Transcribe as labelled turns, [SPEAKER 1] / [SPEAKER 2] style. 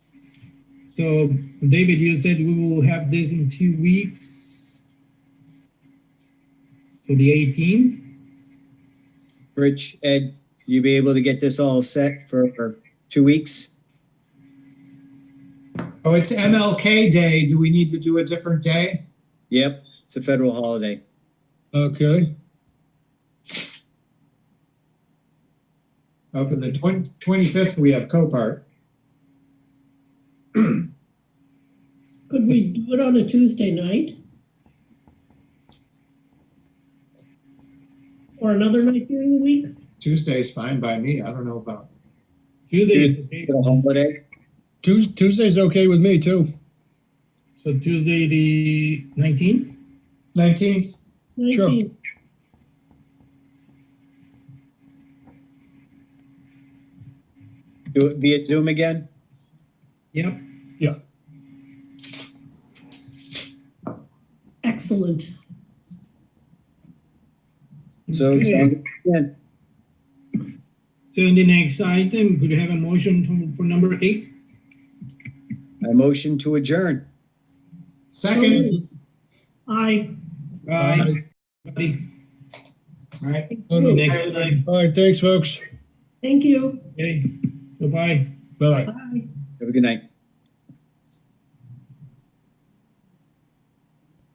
[SPEAKER 1] So David, you said we will have this in two weeks. So the eighteenth,
[SPEAKER 2] Rich, Ed, you be able to get this all set for for two weeks?
[SPEAKER 3] Oh, it's MLK Day. Do we need to do a different day?
[SPEAKER 2] Yep, it's a federal holiday.
[SPEAKER 4] Okay,
[SPEAKER 3] Up in Oh, the twen- 25th, we have Copart.
[SPEAKER 5] Could we do it on a Tuesday night? Or another night during the week?
[SPEAKER 3] Tuesday's fine by me. I don't know about,
[SPEAKER 1] Tuesday is the day,
[SPEAKER 2] Federal holiday.
[SPEAKER 4] Tues- Tuesday's okay with me too.
[SPEAKER 1] so Tuesday, the nineteenth?
[SPEAKER 3] 19th?
[SPEAKER 4] Sure.
[SPEAKER 5] 19th.
[SPEAKER 2] Do it via Zoom again?
[SPEAKER 1] Yep.
[SPEAKER 5] Excellent.
[SPEAKER 2] So,
[SPEAKER 1] Okay.
[SPEAKER 2] yeah,
[SPEAKER 1] So in the next item, could you have a motion to- for number eight?
[SPEAKER 2] I motion to adjourn.
[SPEAKER 3] Second?
[SPEAKER 5] Aye.
[SPEAKER 1] Aye. Buddy.
[SPEAKER 3] All right.
[SPEAKER 4] All right,
[SPEAKER 1] Next item,
[SPEAKER 4] All right, thanks, folks.
[SPEAKER 5] Thank you.
[SPEAKER 1] okay, bye-bye.
[SPEAKER 4] Bye.
[SPEAKER 5] Bye.
[SPEAKER 2] Have a good night.